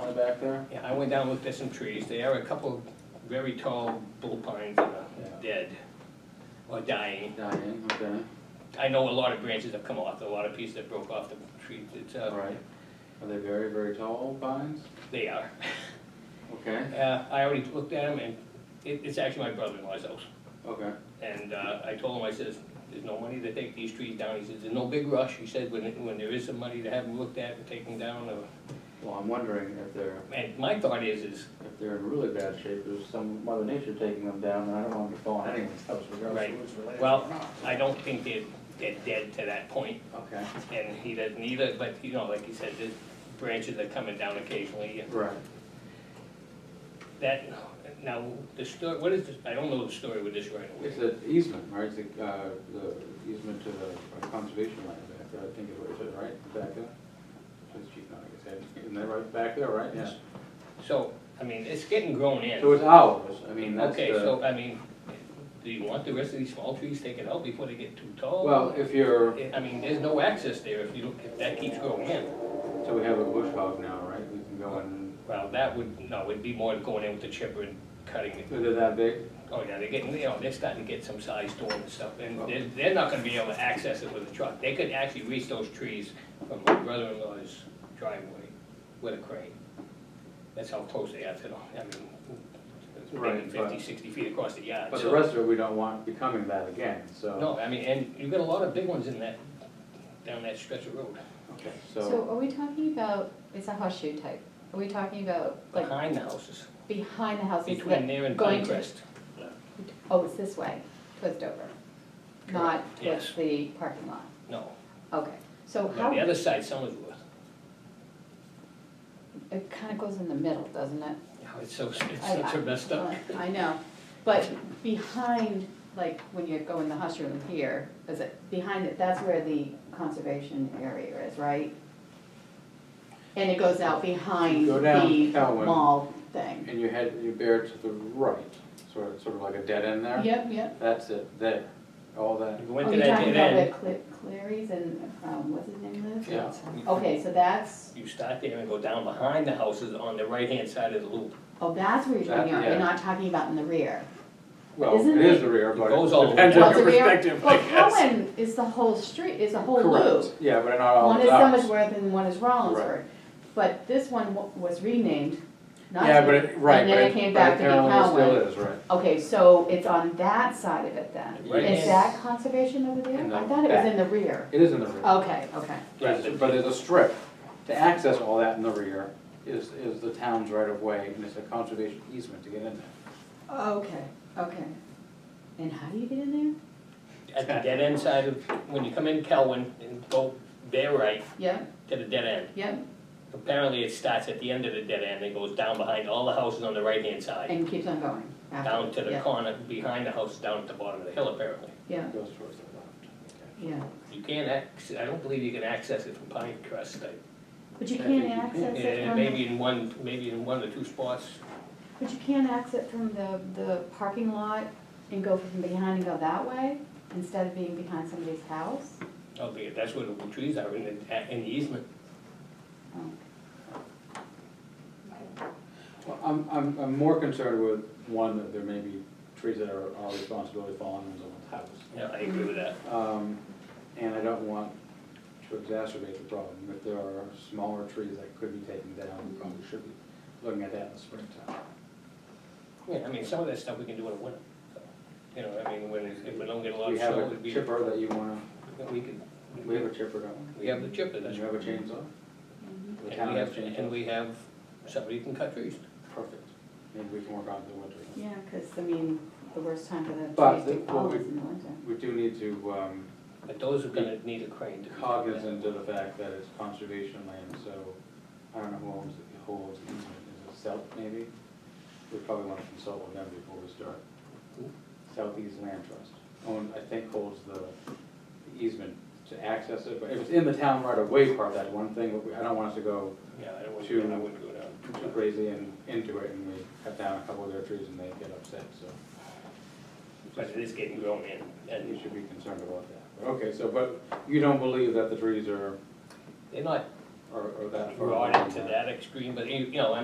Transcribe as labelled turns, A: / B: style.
A: down back there?
B: Yeah, I went down, and looked at some trees, there are a couple very tall bull pines that are
A: Yeah.
B: dead or dying.
A: Dying, okay,
B: I know a lot of branches have come off, a lot of pieces that broke off the trees, it's,
A: all
B: uh,
A: right. Are they very, very tall vines?
B: they are.
A: Okay,
B: Uh, I already looked at them, and it, it's actually my brother-in-law's house.
A: okay,
B: And uh, I told him, I says, there's no money to take these trees down. He says, there's no big rush. He said, when, when there is some money to have them looked at and taken down. or-
A: well, I'm wondering if they're,
B: And my thought is, is,
A: if they're in really bad shape, there's some mother nature taking them down, and I don't want them to fall on anyone's house regardless
B: Right.
A: of what's related
B: Well-
A: or not.
B: I don't think they're, they're dead to that point,
A: Okay,
B: and he doesn't either, but you know, like you said, the branches are coming down occasionally. and
A: right,
B: That, now, the story, what is this, I don't know the story with this right away.
A: it's an easement, right, it's a, uh, the easement to the conservation land back there, I think is what it said, right, back there? Police chief, no, I guess, isn't that right, back there, right?
B: Yes. So, I mean, it's getting grown in.
A: So it's ours, I mean, that's
B: Okay,
A: the-
B: so, I mean, do you want the rest of these small trees taken out before they get too tall? Eh,
A: Well, if you're,
B: I mean, there's no access there if you, don't- if that keeps going in.
A: so we have a bush hog now, right? We can go in,
B: Well, that would, no, it'd be more going in with the chipper and cutting it.
A: so they're that big?
B: Oh, yeah, they're getting, you know, they're starting to get some size to them and stuff, and they're, they're not gonna be able to access it with a truck. They could actually reach those trees from my brother-in-law's driveway with a crane. That's how close they are to them, I mean, it's maybe
A: Right, but-
B: fifty, sixty feet across the yard.
A: But the
B: so-
A: rest of it, we don't want becoming that again, so.
B: No, I mean, and you've got a lot of big ones in that, down that stretch of road,
A: Okay,
C: So
A: so,
C: are we talking about, it's a horseshoe type, are we talking about like
B: behind the houses,
C: behind the houses?
B: Uh-huh. between
C: like
B: there and
C: going to-
B: Pinecrest.
C: Oh, it's this way, towards Dover, not
B: yes.
C: towards the parking lot,
B: No,
C: okay. So
B: no,
C: how,
B: the other side, Summersworth.
C: it kind of goes in the middle, doesn't it?
B: Oh, It's so, it's
C: I-
B: such a
C: I-
B: messed up.
C: I know, but behind, like when you go in the horseshoe in here, is it, behind it, that's where the conservation area is, right? And it goes out behind
A: Go down
C: the
A: Cowan.
C: mall thing.
A: and you head, you bear to the right, sort of, sort of like a dead end there?
C: Yep, yep.
A: That's it, there, all that,
B: We went
C: Oh,
B: to
C: you're
B: that
C: talking
B: dead
C: about
B: end.
C: the Cle- Clarys and, um, what's his name, Liz?
A: yeah.
C: Okay, so that's,
B: You start there and go down behind the houses on the right-hand side of the loop.
C: oh, that's where you're talking
A: That-
C: about,
A: yeah.
C: you're not talking about in the rear.
A: Well,
C: Isn't
A: it is
C: it-
A: the rear,
B: It
A: but
B: goes all
A: it
B: the
A: depends
B: way
A: on
B: down.
C: Well,
A: your
C: the rear-
A: perspective, I
C: Well,
A: guess.
C: Cohen is the whole street, is the whole
A: Correct,
C: loop.
A: yeah, but they're not all
C: One is
A: ours.
C: Summersworth and one is
A: Right.
C: Rollinsford. But this one wa- was renamed, not.
A: Yeah, but it, right,
C: And
A: but
C: then it
A: it,
C: came
A: but
C: back to be
A: apparently it
C: Cowan.
A: still is, right?
C: Okay, so it's on that side of it then?
B: Right-hand-
C: Is that conservation over
A: In
C: there?
A: the
C: I thought it was
A: back.
C: in the rear.
A: It is in the rear.
C: Okay, okay.
A: But it's- but there's a strip, to access all that in the rear is, is the town's right of way, and it's a conservation easement to get in there.
C: Okay, okay. And how do you get in there?
B: At the dead end side of, when you come in Kelwin and go there right
C: Yep,
B: to the dead end.
C: yep,
B: Apparently it starts at the end of the dead end and goes down behind all the houses on the right-hand side.
C: and keeps on going after.
B: Down to the
C: yeah,
B: corner, behind the house, down at the bottom of the hill apparently.
C: Yeah,
A: It goes towards the left.
C: yeah,
B: You can't ac, I don't believe you can access it from Pinecrest. I-
C: but you
A: Yeah,
C: can't
A: you can.
C: access it
B: And
C: from, the-
B: maybe in one, maybe in one or two spots.
C: but you can't access it from the, the parking lot and go from behind and go that way instead of being behind somebody's house?
B: Okay, that's where the trees are in the, in the easement.
C: Oh,
A: Well, I'm, I'm, I'm more concerned with, one, that there may be trees that are our responsibility falling on someone's house.
B: Yeah, I agree with that.
A: Um, And I don't want to exacerbate the problem, if there are smaller trees that could be taken down, we probably should be looking at that in the springtime.
B: Yeah, I mean, some of that stuff we can do in the winter. so, You know, I mean, when, it's- if we don't get a lot
A: We
B: of
A: have
B: snow,
A: a
B: it'd be,
A: chipper that you wanna,
B: we could,
A: we have a chipper, don't we?
B: we have the chipper,
A: And
B: that's
A: you have
B: right.
A: a chainsaw? The
B: And
A: town
B: we
A: has
B: have,
A: chainsaws.
B: and we have, somebody who can cut trees.
A: Perfect, maybe we can work on it in the winter.
C: Yeah, because, I mean, the worst time for
A: But the-
C: the trees to
A: what
C: fall
A: we-
C: is in the winter.
A: We do need to, um,
B: But those are gonna need a crane to.
A: cognizant of the fact that it's conservation land, so I don't know who owns, it- who holds the easement, is it South maybe? We probably want to consult with them before we start.
B: Who?
A: Southeast Land Trust, own, I think holds the the easement to access it, but if it's in the town right of way part, that's one thing, but we- I don't want us to go
B: Yeah, I don't want,
A: To-
B: I wouldn't go
A: too
B: down.
A: crazy and into it and we cut down a couple of their trees and they get upset, so.
B: But it is getting grown in,
A: You
B: and
A: should be concerned about that. But, Okay, so, but you don't believe that the trees are,
B: they're not
A: are are that far?
B: rotted
A: along
B: to
A: that?
B: that extreme, but you, you know, I mean,